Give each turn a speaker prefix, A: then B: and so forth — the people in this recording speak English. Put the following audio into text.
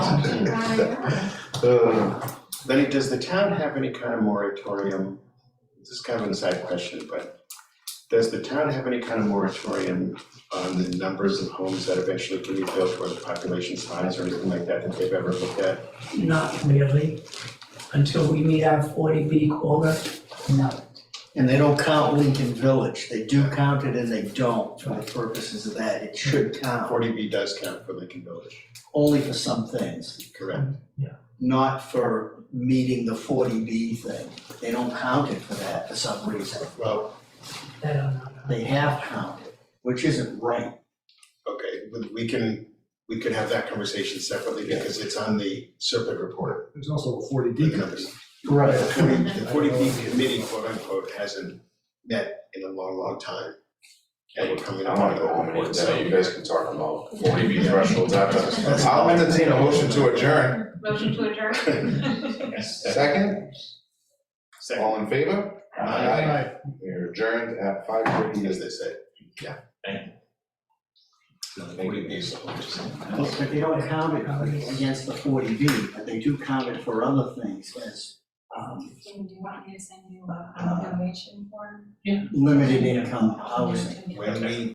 A: Uh, Lenny, does the town have any kind of moratorium? This is kind of an aside question, but does the town have any kind of moratorium on the numbers of homes that eventually can be built or the population size or anything like that that they've ever looked at?
B: Not really, until we meet our forty B quota.
C: No,
D: And they don't count Lincoln Village, they do count it and they don't for the purposes of that, it should count,
A: Forty B does count for Lincoln Village,
D: only for some things,
A: correct?
D: not for meeting the forty B thing. They don't count it for that for some reason,
A: Well,
B: I don't know.
D: they have counted, which isn't right.
A: okay, we- we can, we could have that conversation separately because it's on the Serpent report.
E: There's also a forty D
A: with the numbers.
E: committee.
D: Right.
A: The forty, the forty B committee, quote unquote, hasn't met in a long, long time. And we're coming
F: I
A: up
F: wanna
A: on
F: go home and eat
A: that.
F: dinner, you guys can talk about forty B thresholds after this.
A: That's-
F: I'll entertain a motion to adjourn,
G: Motion to adjourn.
F: second,
A: Second,
F: all in favor? Aye. We're adjourned at five thirty,
A: as they say, yeah. No, the forty B is
D: But but they don't count it against the forty B, but they do count it for other things as um
G: Do you want me to send you a valuation form?
D: limited income housing.
A: When we